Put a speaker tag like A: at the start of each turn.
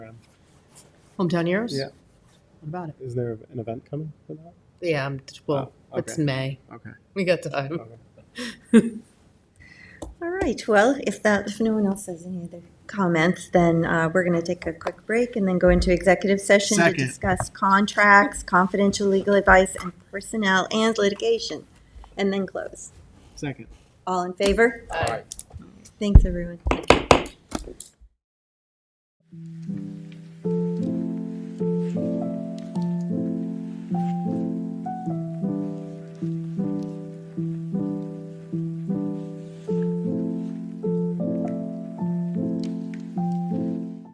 A: Hometown Heroes?
B: Yeah.
A: What about it?
B: Is there an event coming for that?
A: Yeah, I'm, well,
B: Oh,
A: it's
B: okay.
A: May.
B: Okay.
A: We got time.
B: okay.
C: All right, well, if that, if no one else has any other comments, then uh, we're going to take a quick break and then go into executive session to
D: Second.
C: discuss contracts, confidential legal advice, and personnel and litigation, and then close.
D: Second.
C: All in favor? Thanks, everyone.